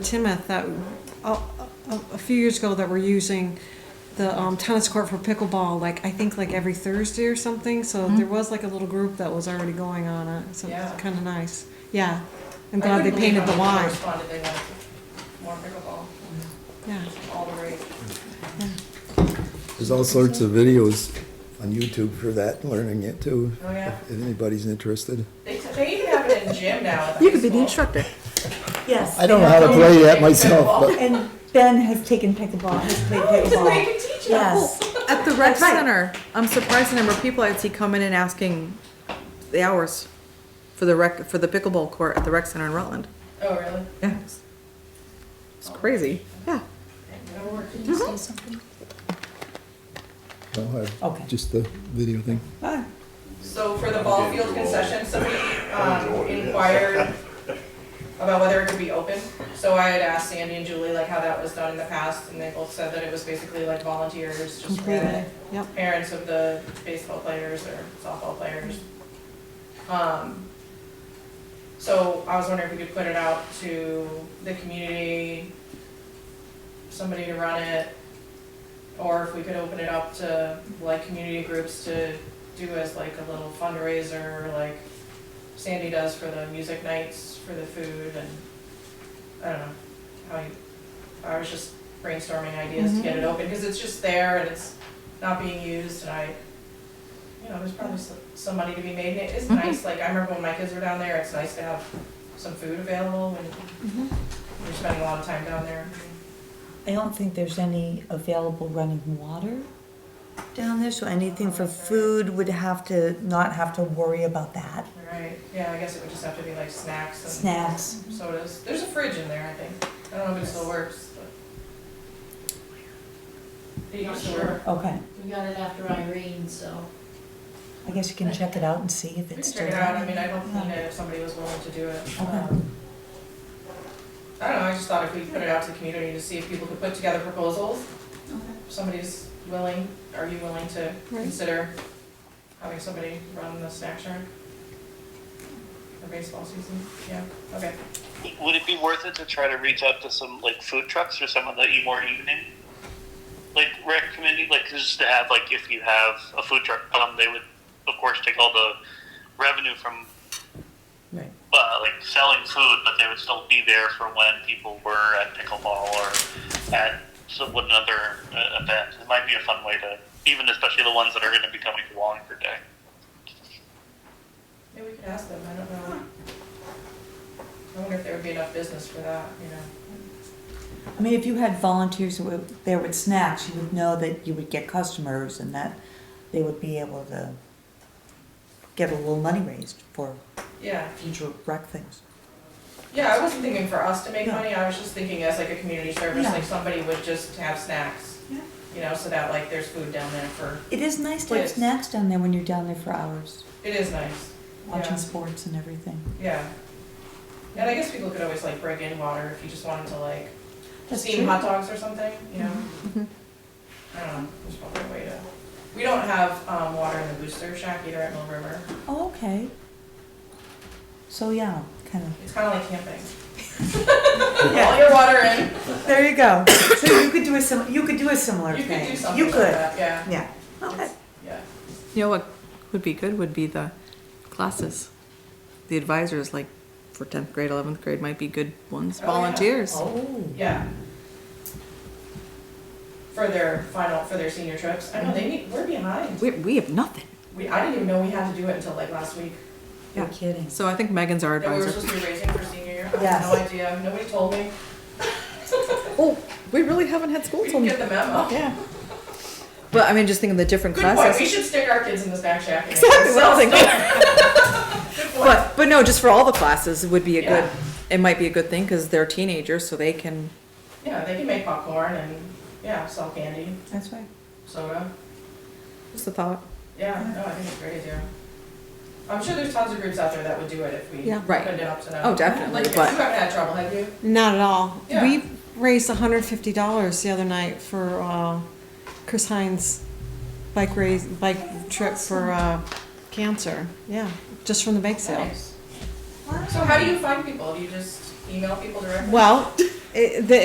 Timoth that a, a, a few years ago that we're using the um, tennis court for pickleball. Like I think like every Thursday or something. So there was like a little group that was already going on it. So Yeah. it's kind of nice. Yeah, I'm I glad they couldn't believe painted how the many line. people Responded, they wanted more pickleball, Yeah, all the rage. There's all sorts of videos on YouTube for that, learning it too, Oh, yeah. if anybody's interested. They, they even have it in gym now at the You high could be the school. instructor. Yes. I don't know how to play that myself, but And Ben has taken pickleball, has played So they pickleball. can teach you. Yes. At the rec That's right. center, I'm surprised the number of people I'd see come in and asking the hours for the rec, for the pickleball court at the rec center in Rutland. Oh, really? Yeah. It's it's crazy. Yeah. That'll work. no, I- Okay. just the video thing. Ah, So for the ball field concession, somebody, um, inquired about whether it could be open. So I had asked Sandy and Julie like how that was done in the past, and they both said that it was basically like volunteers, just completely. the Yep. parents of the baseball players or softball players. Um, so I was wondering if we could put it out to the community, somebody to run it, or if we could open it up to like community groups to do as like a little fundraiser, like Sandy does for the music nights, for the food and, I don't know, how you, I was just brainstorming ideas to get it open, cause it's just there and it's not being used and I, you know, there's probably s- some money to be made and it is nice, like I remember when my kids were down there, it's nice to have some food available when you're spending a lot of time down there. I don't think there's any available running water down there, so anything for food would have to, not have to worry about that. Right, yeah, I guess it would just have to be like snacks and. Snacks. sodas. There's a fridge in there, I think. I don't know if it still works, but. It used to work. Okay, We got it after Irene, so. I guess you can check it out and see if We can it's check still. it out. I mean, I don't Yeah. need it if somebody was willing to do it. Okay. Um, I don't know, I just thought if we put it out to the community to see if people could put together proposals, if somebody's willing, are you willing to Right. consider having somebody run the snack shack? For baseball season, yeah, okay. Would it be worth it to try to reach out to some like food trucks or some of the eat more evening, like rec committee, like just to have like if you have a food truck come, they would of course take all the revenue from Right. uh, like selling food, but they would still be there for when people were at pickleball or at some another uh, event. It might be a fun way to even especially the ones that are going to be coming to Wallingford Day. Maybe we could ask them, I don't know. I wonder if there would be enough business for that, you know? I mean, if you had volunteers who were there with snacks, you would know that you would get customers and that they would be able to get a little money raised for Yeah, future rec things. yeah, I wasn't thinking for us to make Yeah. money, I was just thinking as like a community service, Yeah. like somebody would just have snacks. Yeah. You know, so that like there's food down there for, It is nice to have Yes. snacks down there when you're down there for hours, it is nice, watching Yeah. sports and everything. yeah. And I guess people could always like bring in water if you just wanted to like That's steam true. Mm-hmm. hot dogs or something, you know? I don't know, there's probably a way to, we don't have, um, water in the booster shack either at Mill River, Oh, okay. So yeah, kind of. it's kinda like camping. All your water in. There you go. So you could do a sim, you could do a similar You could thing. do something like that, yeah, Yeah. Okay. yeah. You know what would be good would be the classes. The advisors, like for tenth grade, eleventh grade, might be good ones. Oh, yeah. Volunteers. Oh. Yeah. For their final, for their senior trips, I know they need, we're behind. We we have nothing. We, I didn't even know we had to do it until like last week, You're kidding. So I think Megan's our that we were advisor. supposed to be raising for senior year, I had Yes. no idea, nobody told me, Oh, we really haven't had school we till didn't get the memo. Yeah. But I mean, just thinking the different Good classes. point, we should stick our kids in the snack shack and. Exactly what I was sell thinking. stuff. Good point. But but no, just for all the classes it would be a Yeah. good. It might be a good thing because they're teenagers, so they can. Yeah, they can make popcorn and, yeah, sell candy, That's right. soda. What's the thought? Yeah, no, I think it's a great idea. I'm sure there's tons of groups out there that would do it if we Yeah. opened Right. it up to them. Oh, definitely, Like, you but- haven't had trouble, have you? Not at all. Yeah. We raised hundred fifty dollars the other night for uh, Chris Hines' bike race bike trip for uh, cancer. Yeah, just from the bake sale. Nice. So how do you find people? Do you just email people directly? Well, it, the